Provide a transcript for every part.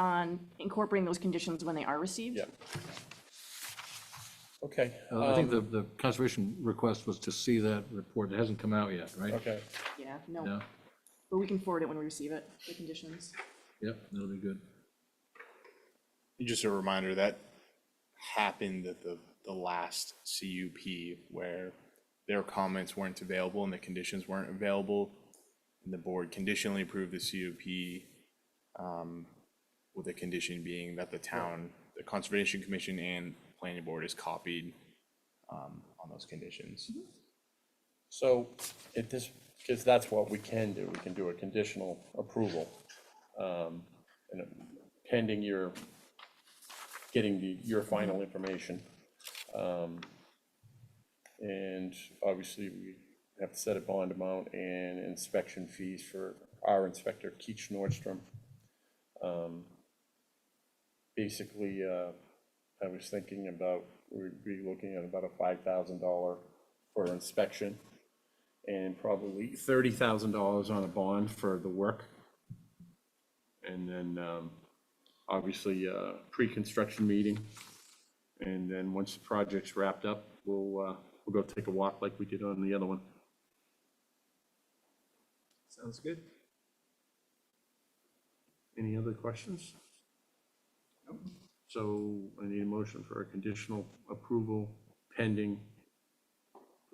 on incorporating those conditions when they are received. Yeah. Okay, um, Uh, I think the, the conservation request was to see that report. It hasn't come out yet, right? okay. Yeah, no, Yeah, but we can forward it when we receive it, the conditions. yep, that'll be good. Just a reminder, that happened at the, the last CUP where their comments weren't available and the conditions weren't available. And the board conditionally approved the CUP um, with the condition being that the town, the Conservation Commission and Planning Board is copied um, on those conditions. So if this, because that's what we can do, we can do a conditional approval. um, and Pending your, getting the- your final information. Um, And obviously, we have to set a bond amount and inspection fees for our inspector, Keach Nordstrom. Um, Basically, uh, I was thinking about, we'd be looking at about a five thousand dollar for inspection and probably thirty thousand dollars on a bond for the work. And then, um, obviously, uh, pre-construction meeting. And then, once the project's wrapped up, we'll, uh, we'll go take a walk like we did on the other one. Sounds good. Any other questions? So I need a motion for a conditional approval pending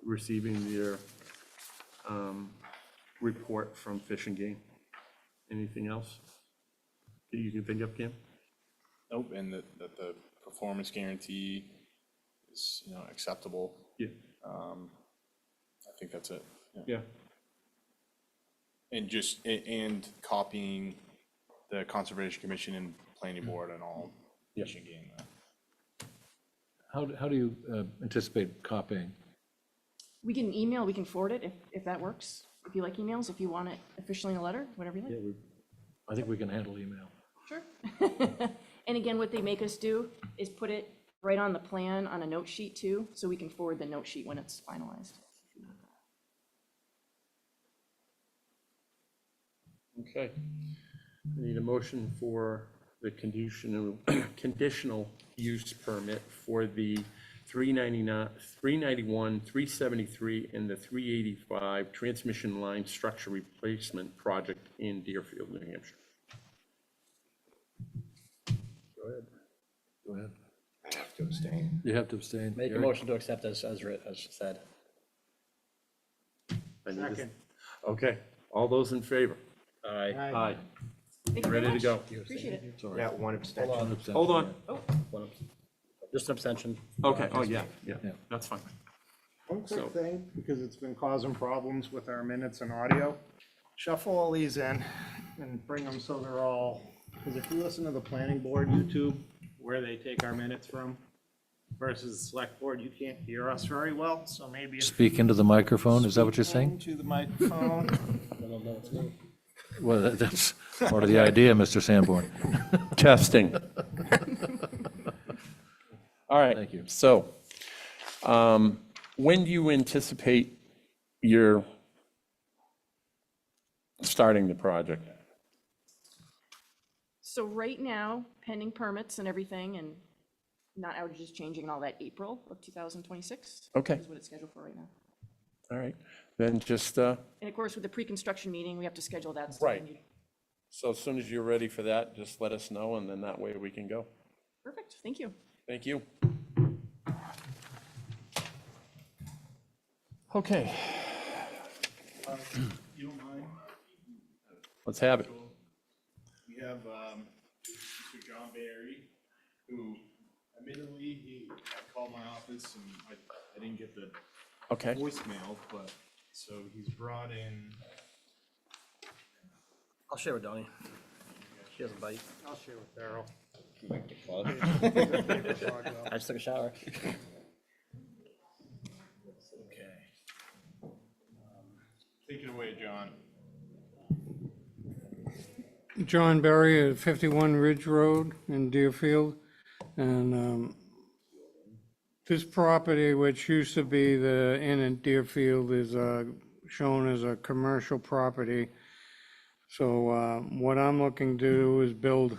receiving their um, report from Fish and Game. Anything else that you can think of, Cam? Nope, and that, that the performance guarantee is, you know, acceptable. Yeah. Um, I think that's it. Yeah. Yeah. And just, a- and copying the Conservation Commission and Planning Board and Yeah. all. Fish and Game, uh, How, do- how do you uh, anticipate copying? We can email, we can forward it if, if that works, if you like emails, if you want it officially in a letter, whatever you like. I think we can handle email. Sure. And again, what they make us do is put it right on the plan on a note sheet too, so we can forward the note sheet when it's finalized. Okay. I need a motion for the conditional, conditional use permit for the 399, 391, 373, and the 385 transmission line structure replacement project in Deerfield, New Hampshire. Go ahead. I have to abstain. You have to abstain. Make a Gary. motion to accept as, as writ, as said. I need this- Okay, all those in favor? Aye. Aye. Thank you very Ready to much. go? Appreciate it. Sorry. Yeah, one abstention. One abstention, Hold on. One abs- Just an abstention. Okay, oh, yeah, yeah, Yeah. that's fine. One So- quick thing, because it's been causing problems with our minutes and audio. Shuffle all these in and bring them so they're all, because if you listen to the planning board YouTube, where they take our minutes from versus the select board, you can't hear us very well, so maybe. if- Speak into the microphone, is that what you're saying? To the microphone. Well, that- that's part of the idea, Mr. Sanborn. Testing. All right. Thank you. So, um, when do you anticipate your starting the project? So right now, pending permits and everything and not outages changing and all that, April of 2026. Okay. Is what it's scheduled for right now. All right, then just, uh, And of course, with the pre-construction meeting, we have to schedule that. so Right. when you- so as soon as you're ready for that, just let us know, and then that way we can go. Perfect, thank you. Thank you. Okay. Uh, You don't mind? Let's have it. We have um, Mr. John Barry, who admittedly, he had called my office and I, I didn't get the Okay, voicemail, but, so he's brought in, I'll share with Donnie. She doesn't bite. I'll share with Darrell. I just took a shower. Okay. take it away, John. John Berry at 51 Ridge Road in Deerfield. And um, this property, which used to be the inn in Deerfield, is uh, shown as a commercial property. So uh, what I'm looking to do is build